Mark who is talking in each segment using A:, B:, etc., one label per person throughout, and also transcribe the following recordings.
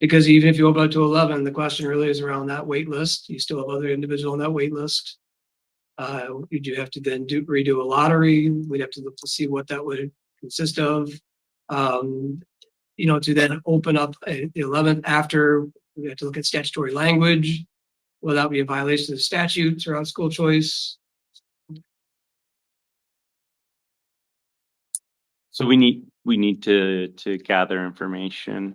A: Because even if you open up to eleven, the question really is around that wait list. You still have other individual on that wait list. Uh, you do have to then do redo a lottery. We'd have to look to see what that would consist of. Um, you know, to then open up a- the eleventh after, we have to look at statutory language. Will that be a violation of statutes around school choice?
B: So we need, we need to, to gather information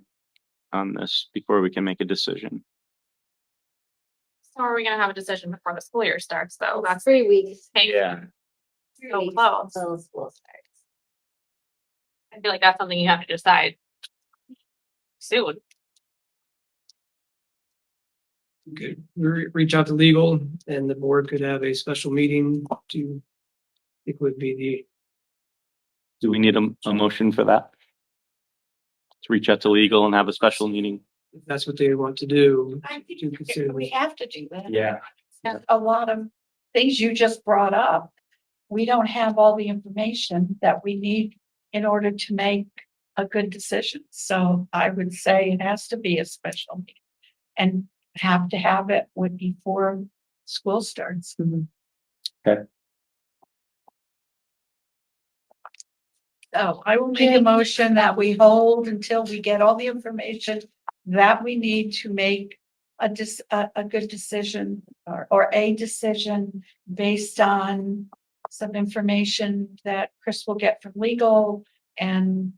B: on this before we can make a decision.
C: So are we gonna have a decision before the school year starts though? That's
D: Oh, three weeks. Oh,
C: hanging
D: Three
C: so
D: weeks
C: close.
D: Till school starts.
C: I feel like that's something you have to decide soon.
A: Could re- reach out to legal and the board could have a special meeting to, it would be the
B: Do we need a, a motion for that? To reach out to legal and have a special meeting?
A: if that's what they want to do.
E: I think
A: to consider
E: we
A: this.
E: have to do that.
B: Yeah.
E: And a lot of things you just brought up, we don't have all the information that we need in order to make a good decision. So I would say it has to be a special meeting and have to have it with before school starts.
B: Okay.
E: So I will make a motion that we hold until we get all the information that we need to make a dis, a, a good decision or, or a decision based on some information that Chris will get from legal and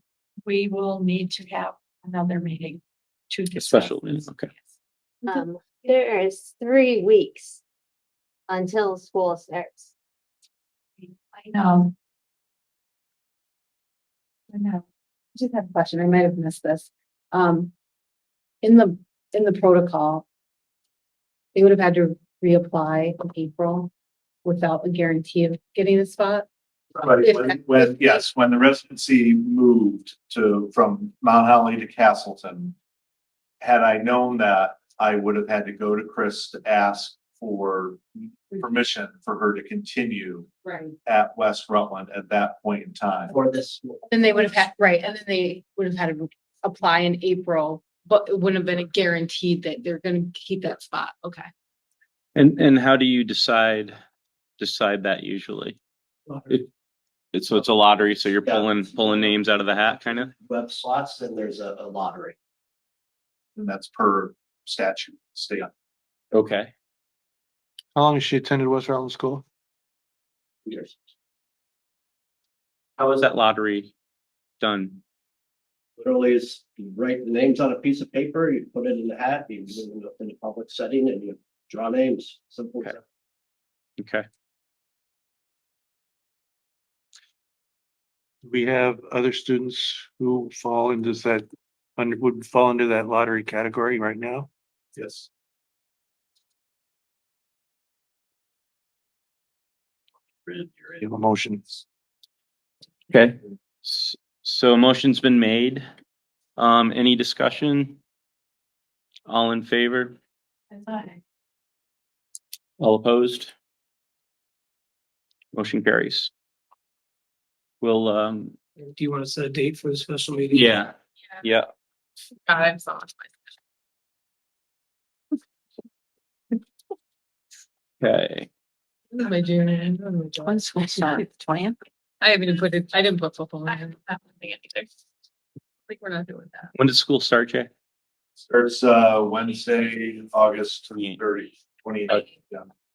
E: we will need to have another meeting to
B: A
E: discuss.
B: special meeting,
E: this.
B: okay.
E: Mhm.
D: Um, there is three weeks until school starts.
E: I know. I know.
F: I just have a question. I might have missed this. Um, in the, in the protocol, they would have had to reapply in April without a guarantee of getting a spot.
G: Right,
F: If-
G: when, when, yes, when the residency moved to, from Mount Holly to Castleton. Had I known that, I would have had to go to Chris to ask for permission for her to continue
F: Right.
G: at West Rutland at that point in time.
H: for this.
F: Then they would have had, right, and then they would have had to apply in April, but it wouldn't have been a guaranteed that they're gonna keep that spot. Okay.
B: And, and how do you decide, decide that usually? It's, so it's a lottery, so you're
H: Yeah.
B: pulling, pulling names out of the hat, kind of?
H: Web slots, then there's a, a lottery.
G: And that's per statute, state.
B: Okay.
I: How long has she attended West Rutland School?
H: Years.
B: How is that lottery done?
H: Literally, is you write the names on a piece of paper, you put it in the hat, you do it in a- in a public setting and you draw names, simple.
B: Okay. Okay.
I: Do We have other students who fall into that, under, would fall into that lottery category right now.
G: Yes.
I: You have a motion.
B: Okay. S- So a motion's been made. Um, any discussion? All in favor? All opposed? Motion carries. We'll, um,
A: Do you want to set a date for the special meeting?
B: yeah, yeah,
C: God, I'm so much.
B: okay.
F: My junior.
E: When school starts, twentieth?
F: I haven't even put it, I didn't put football
C: I haven't been either.
F: Like, we're not doing that.
B: When does school start, Jay?
G: Starts, uh, Wednesday, August thirty, twenty.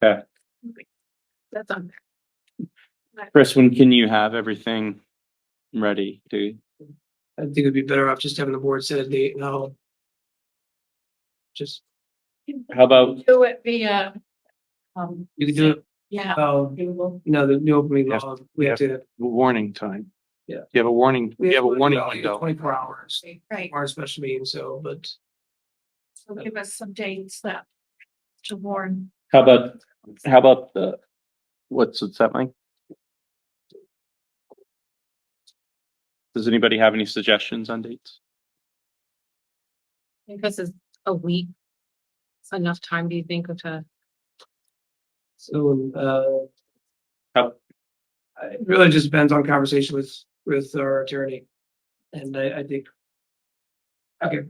F: That's on
B: Chris, when can you have everything ready to,
A: I think it'd be better off just having the board set a date and I'll just,
B: how about,
E: Do it via, um,
A: you can do it,
E: yeah.
F: Uh,
A: um,
E: Google.
A: you know, the new opening
I: Yes.
A: law, we have to.
I: Warning time.
A: Yeah.
I: You have a warning, you have a warning
A: Well,
I: window.
A: Twenty-four hours,
E: Right,
A: our special meeting, so, but
E: so give us some dates that to warn.
B: how about, how about the, what's, what's that like? Does anybody have any suggestions on dates?
F: I think this is a week. It's enough time, do you think, to?
A: So, uh.
B: How-
A: It really just depends on conversation with, with our attorney. And I, I think. Okay,